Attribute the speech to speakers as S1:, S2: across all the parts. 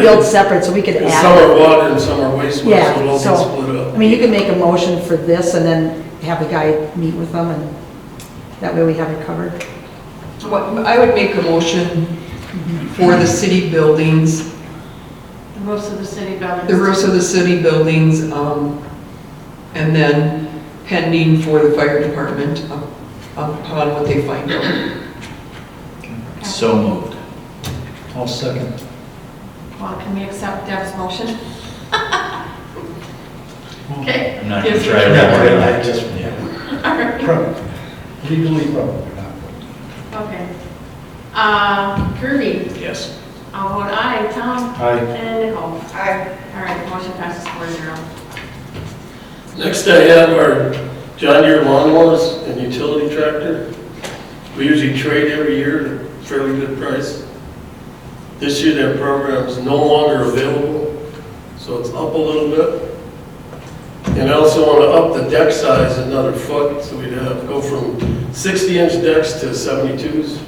S1: billed separate, so we could add.
S2: Some are water and some are wastewater, so
S1: Yeah,
S2: it'll all
S1: so,
S2: get split up.
S1: I mean, you could make a motion for this and then have the guy meet with them and that way we have it covered.
S3: What- I would make a motion for the city buildings,
S4: The roofs of the city buildings.
S3: the roofs of the city buildings, um, and then pending for the fire department up- upon what they find out.
S5: So moved.
S6: I'll second.
S4: Well, can we accept Deb's motion? Okay.
S5: I'm not gonna
S4: Yes.
S5: try
S6: Yeah, I
S5: that
S6: just,
S5: one. Yeah.
S4: All right.
S6: probably, legally probably not.
S4: Okay. Uh, Kirby,
S5: Yes.
S4: I'll vote aye. Tom?
S6: Aye.
S4: And Nicole? Aye. All right, motion passes four zero.
S2: Next I have our John Deere lawnmowers and utility tractor. We usually trade every year at a fairly good price. This year that program's no longer available, so it's up a little bit. And I also want to up the deck size another foot, so we'd have, go from 60-inch decks to 72s.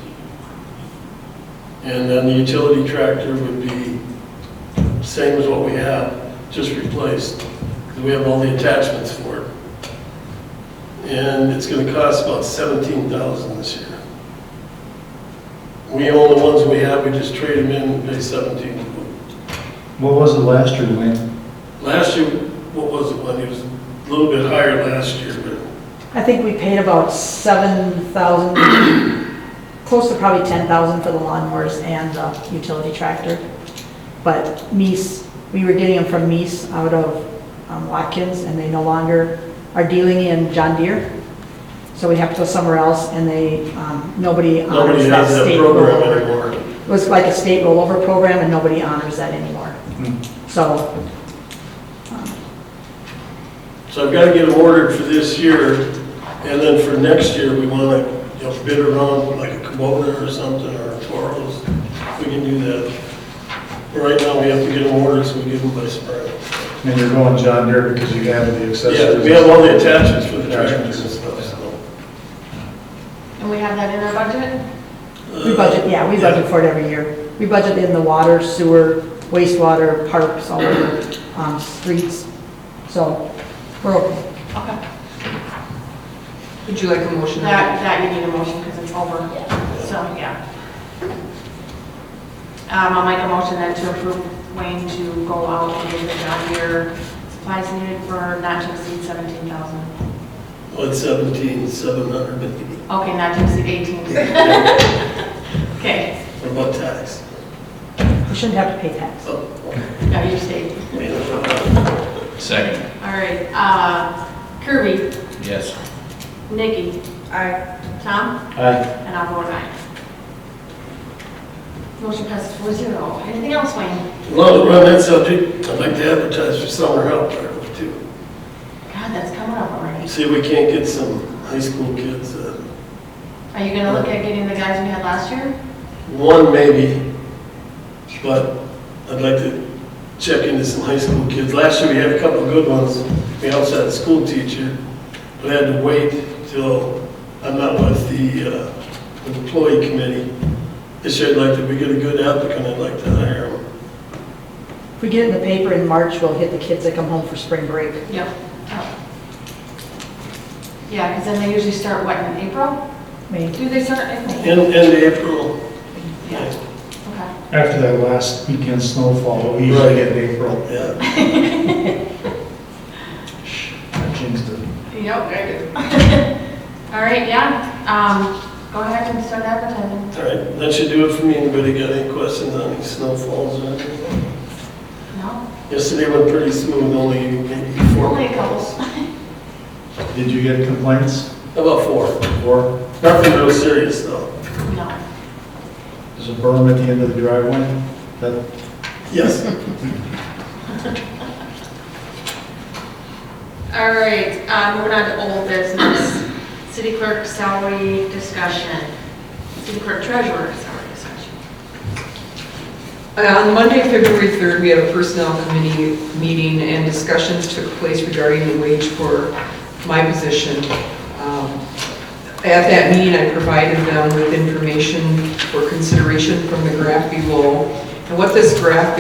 S2: And then the utility tractor would be same as what we have, just replaced because we have all the attachments for it. And it's gonna cost about seventeen thousand this year. We own the ones we have, we just trade them in and pay seventeen.
S6: What was the last year, Wayne?
S2: Last year, what was it, when it was a little bit higher last year, but
S1: I think we paid about seven thousand, close to probably ten thousand for the lawnmowers and the utility tractor. But Meese, we were getting them from Meese out of um, Watkins, and they no longer are dealing in John Deere. So we have to go somewhere else, and they, um, nobody honors
S2: nobody
S1: that
S2: has that
S1: state
S2: program
S1: rollover.
S2: anymore.
S1: It was like a state rollover program, and nobody honors that anymore.
S6: Hmm.
S1: So,
S2: So I've got to get them ordered for this year, and then for next year, we want to, you know, bid around like a Kubota or something, or a Toros. We can do that. But Right now, we have to get them ordered, so we get them by spring.
S6: And you're going John Deere because you have the accessories.
S2: Yeah, we have all the attachments for the tractors and stuff, so.
S4: And we have that in our budget?
S1: we budget, yeah, we budget for it every year. We budget in the water, sewer, wastewater, parks, all over, um, streets, so we're okay.
S4: Okay.
S3: Would you like a motion?
S4: That, that you need a motion because it's over. So, yeah. Um, I'll make a motion then to approve Wayne to go out and get the John Deere supplies needed for not to exceed seventeen thousand.
S2: One Uh, oh, seventeen, seven hundred,
S4: Okay, not to exceed eighteen. Okay,
S2: what about tax?
S1: We shouldn't have to pay tax.
S2: Oh,
S4: now you stayed.
S2: man, I
S5: Second.
S4: All right, uh, Kirby,
S5: Yes.
S4: Nikki. Aye. Tom,
S6: Aye.
S4: and I'll vote aye. Motion passes four zero. Anything else, Wayne?
S2: don't know. Well, to run that subject, I'd like to advertise for summer help, there, too.
S4: God, that's coming up already.
S2: See if we can't get some high school kids, uh,
S4: Are you gonna look at getting the guys we had last year?
S2: One maybe, but I'd like to check into some high school kids. Last year, we had a couple of good ones. We also had a school teacher, but I had to wait till I met with the uh, employee committee. This year, I'd like to, if we get a good applicant, I'd like to hire him.
S1: If we get it in the paper in March, we'll hit the kids that come home for spring break.
S4: Yep. Oh. Yeah, because then they usually start, what, in April?
S1: May.
S4: Do they start in May?
S2: End, end of April,
S4: Yeah, okay.
S6: After that last weekend snowfall, we usually get in April.
S2: yeah.
S6: I jinxed it.
S4: Yep, I do. All right, yeah, um, go ahead and start advertising.
S2: All right, that should do it for me. Anybody got any questions on any snowfalls or anything?
S4: No?
S2: Yesterday went pretty smooth, only maybe four,
S4: Only a couple.
S6: Did you get complaints
S2: about four.
S6: or
S2: Nothing real serious, though.
S4: No.
S6: is a berm at the end of the driveway? That,
S2: Yes.
S4: All right, uh, moving on to old business. City clerk salary discussion. City clerk treasurer salary discussion.
S3: Uh, On Monday, February 3rd, we had a personnel committee meeting and discussions took place regarding the wage for my position. Um, At that meeting, I provided them with information for consideration from the graph below. And what this graph